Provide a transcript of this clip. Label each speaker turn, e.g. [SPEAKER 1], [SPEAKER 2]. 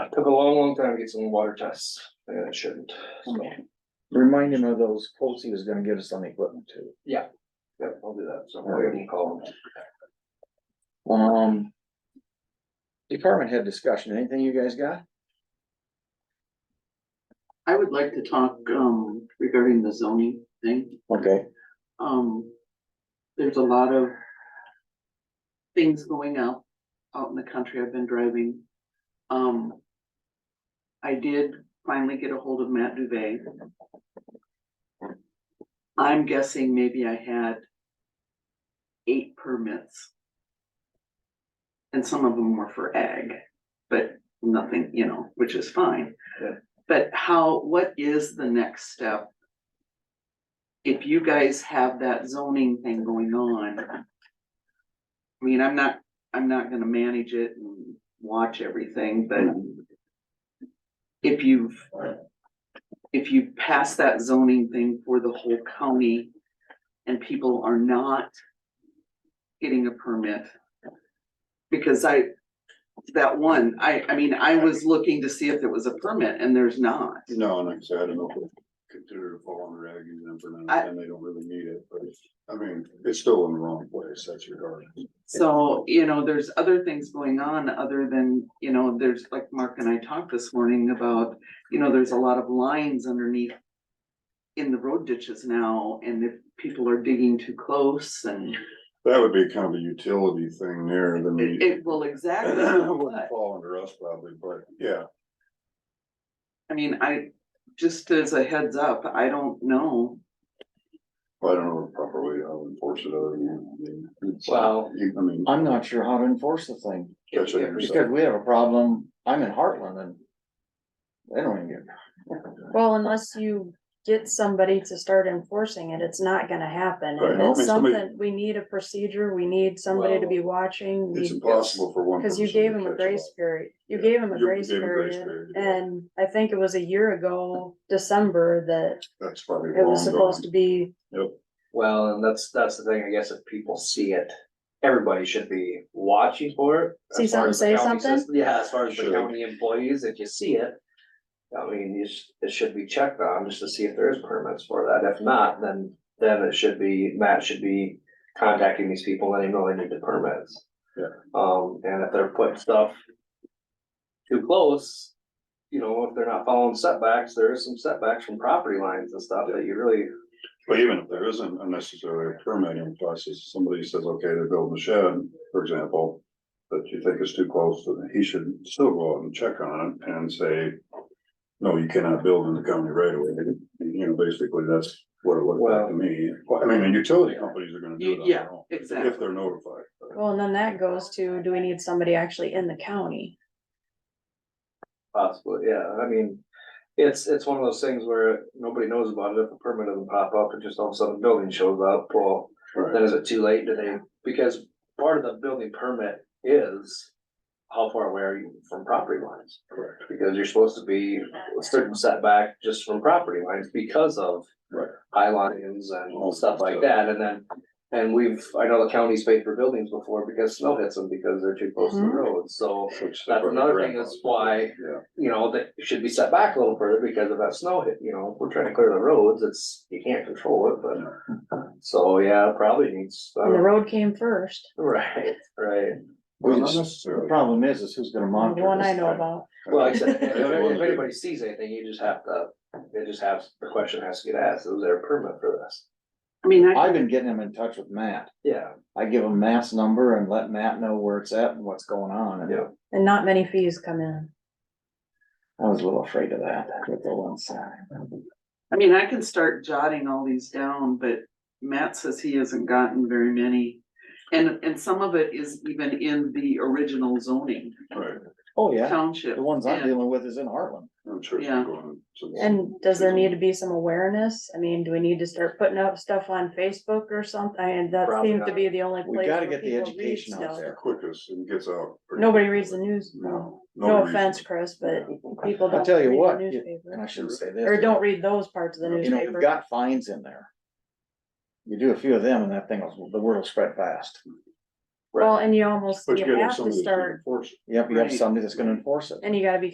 [SPEAKER 1] Took a long, long time to get some water tests, and it shouldn't. So,
[SPEAKER 2] Remind him of those quotes he was gonna give us on the equipment too.
[SPEAKER 1] yeah, I'll do that, so I'll wait and call them.
[SPEAKER 2] Um. Department head discussion, anything you guys got?
[SPEAKER 3] I would like to talk um regarding the zoning thing.
[SPEAKER 2] Okay,
[SPEAKER 3] Um, there's a lot of things going out, out in the country. I've been driving. Um, I did finally get a hold of Matt Duvet. I'm guessing maybe I had eight permits. And some of them were for ag, but nothing, you know, which is fine.
[SPEAKER 1] Yeah.
[SPEAKER 3] But how, what is the next step if you guys have that zoning thing going on. I mean, I'm not, I'm not gonna manage it and watch everything, but. If you've, if you pass that zoning thing for the whole county and people are not. Getting a permit. Because I, that one, I, I mean, I was looking to see if there was a permit and there's not.
[SPEAKER 4] No, and like I said, I don't know if it's considered a fall under ag exempt or
[SPEAKER 3] I-
[SPEAKER 4] not, and they don't really need it, but it's- I mean, it's still in the wrong place, that's your garden.
[SPEAKER 3] So, you know, there's other things going on other than, you know, there's like Mark and I talked this morning about, you know, there's a lot of lines underneath. In the road ditches now, and if people are digging too close and
[SPEAKER 4] That would be kind of a utility thing there, then
[SPEAKER 3] it,
[SPEAKER 4] we.
[SPEAKER 3] it will exactly.
[SPEAKER 4] Wouldn't
[SPEAKER 3] what-
[SPEAKER 4] fall under us probably, but yeah,
[SPEAKER 3] I mean, I, just as a heads up, I don't know.
[SPEAKER 4] I don't know properly how to enforce it other than. I mean, it's-
[SPEAKER 1] Well-
[SPEAKER 4] you- I mean.
[SPEAKER 2] I'm not sure how to enforce the thing,
[SPEAKER 4] That's what you're
[SPEAKER 2] because
[SPEAKER 4] saying.
[SPEAKER 2] we have a problem, I'm in Heartland and. They don't even get,
[SPEAKER 5] Well, unless you get somebody to start enforcing it, it's not gonna happen.
[SPEAKER 4] Right,
[SPEAKER 5] And
[SPEAKER 4] I
[SPEAKER 5] it's
[SPEAKER 4] mean, somebody-
[SPEAKER 5] something, we need a procedure, we need somebody to be watching.
[SPEAKER 4] It's
[SPEAKER 5] we-
[SPEAKER 4] impossible for one.
[SPEAKER 5] Cause you
[SPEAKER 4] person to
[SPEAKER 5] gave him a
[SPEAKER 4] catch
[SPEAKER 5] grace
[SPEAKER 4] it
[SPEAKER 5] period, you
[SPEAKER 4] Yeah,
[SPEAKER 5] gave him a
[SPEAKER 4] you
[SPEAKER 5] grace
[SPEAKER 4] gave him a grace
[SPEAKER 5] period,
[SPEAKER 4] period, yeah.
[SPEAKER 5] and I think it was a year ago, December, that
[SPEAKER 4] all. That's probably.
[SPEAKER 5] it was
[SPEAKER 4] wrong,
[SPEAKER 5] supposed to be.
[SPEAKER 1] Well, and that's, that's the thing, I guess, if people see it, everybody should be watching for it.
[SPEAKER 5] See
[SPEAKER 1] As far
[SPEAKER 5] something,
[SPEAKER 1] as the
[SPEAKER 5] say
[SPEAKER 1] county
[SPEAKER 5] something?
[SPEAKER 1] system- Yeah, as far as the
[SPEAKER 4] Should.
[SPEAKER 1] county employees, if you see it. I mean, you sh- it should be checked on just to see if there's permits for that. If not, then, then it should be, Matt should be contacting these people, letting them know they need the permits.
[SPEAKER 4] Yeah.
[SPEAKER 1] Um, and if they're putting stuff too close, you know, if they're not following setbacks, there is some setbacks from property lines and stuff that you really
[SPEAKER 4] But even if there isn't unnecessary permitting process, somebody says, okay, they're building a shed, for example. That you think is too close, then he should still go out and check on it and say. No, you cannot build in the county right away, you know, basically, that's what it looked like to me, Well, I mean, the utility companies are gonna do it on
[SPEAKER 3] Yeah,
[SPEAKER 4] their own. If
[SPEAKER 3] exactly.
[SPEAKER 4] they're notified,
[SPEAKER 5] Well, and then that goes to, do we need somebody actually in the county?
[SPEAKER 1] Possibly, yeah, I mean, it's, it's one of those things where nobody knows about it, if a permit doesn't pop up, and just all of a sudden a building shows up, well, then
[SPEAKER 4] right,
[SPEAKER 1] is it too late, do they, because part of the building permit is how far away are you from property lines?
[SPEAKER 4] correct,
[SPEAKER 1] Because you're supposed to be a certain setback just from property lines because of
[SPEAKER 4] right,
[SPEAKER 1] high lines and stuff like that, and then, and we've, I know the county's paid for buildings before because snow hits them because they're too close to the
[SPEAKER 5] Mhm.
[SPEAKER 1] road, so
[SPEAKER 4] Which-
[SPEAKER 1] That's another thing, that's why-
[SPEAKER 4] Yeah,
[SPEAKER 1] you know, that it should be set back a little further because of that snow hit, you know, we're trying to clear the roads, it's, you can't control it, but. So, yeah, it probably needs,
[SPEAKER 5] And the
[SPEAKER 4] Uh,
[SPEAKER 5] road came first,
[SPEAKER 1] right, right,
[SPEAKER 4] well,
[SPEAKER 2] we
[SPEAKER 4] not
[SPEAKER 2] just, the
[SPEAKER 4] necessarily.
[SPEAKER 2] problem is, is who's gonna
[SPEAKER 5] the
[SPEAKER 2] monitor
[SPEAKER 5] one I
[SPEAKER 2] this
[SPEAKER 5] know
[SPEAKER 2] thing?
[SPEAKER 5] about.
[SPEAKER 1] well, like I said, if
[SPEAKER 4] Yeah, well,
[SPEAKER 1] if anybody sees anything, you just have to, it just has, the question has to get asked, is there a permit for this?
[SPEAKER 3] I mean, I,
[SPEAKER 2] I've been getting him in touch with Matt,
[SPEAKER 1] Yeah,
[SPEAKER 2] I give him Matt's number and let Matt know where it's at and what's going on, and
[SPEAKER 1] Yeah.
[SPEAKER 5] And not many fees come in.
[SPEAKER 2] I was a little afraid of that, with the one side.
[SPEAKER 3] I mean, I can start jotting all these down, but Matt says he hasn't gotten very many. And, and some of it is even in the original zoning.
[SPEAKER 4] Right,
[SPEAKER 2] Oh, yeah,
[SPEAKER 3] township.
[SPEAKER 2] the ones I'm
[SPEAKER 3] and-
[SPEAKER 2] dealing with is in Heartland.
[SPEAKER 4] I'm sure. it's
[SPEAKER 3] Yeah.
[SPEAKER 4] going to-
[SPEAKER 5] And does there need to be some awareness? I mean, do we need to start putting up stuff on Facebook or something? And that
[SPEAKER 1] Probably
[SPEAKER 5] seems to be the only
[SPEAKER 2] We
[SPEAKER 5] place
[SPEAKER 2] gotta
[SPEAKER 5] where
[SPEAKER 2] get the
[SPEAKER 5] people read
[SPEAKER 2] education out
[SPEAKER 5] stuff.
[SPEAKER 2] there.
[SPEAKER 4] The Quickest and gets out. pretty
[SPEAKER 5] Nobody
[SPEAKER 4] quickly.
[SPEAKER 5] reads the news, no,
[SPEAKER 4] No.
[SPEAKER 5] no
[SPEAKER 4] reads it.
[SPEAKER 5] offense, Chris, but people
[SPEAKER 2] I'll
[SPEAKER 5] don't
[SPEAKER 2] tell
[SPEAKER 5] read
[SPEAKER 2] you
[SPEAKER 5] the
[SPEAKER 2] what, you- and I
[SPEAKER 5] newspaper.
[SPEAKER 2] shouldn't say this.
[SPEAKER 5] Or don't read those parts of the
[SPEAKER 2] You know, we've
[SPEAKER 5] newspaper.
[SPEAKER 2] got fines in there. You do a few of them and that thing, will- the word will spread fast.
[SPEAKER 5] Well, and you almost,
[SPEAKER 4] But you
[SPEAKER 5] you
[SPEAKER 4] gotta have
[SPEAKER 5] have to
[SPEAKER 4] somebody that's gonna
[SPEAKER 5] start,
[SPEAKER 4] enforce it.
[SPEAKER 2] Yep, you have
[SPEAKER 3] Right.
[SPEAKER 2] somebody that's gonna enforce it.
[SPEAKER 5] and you gotta be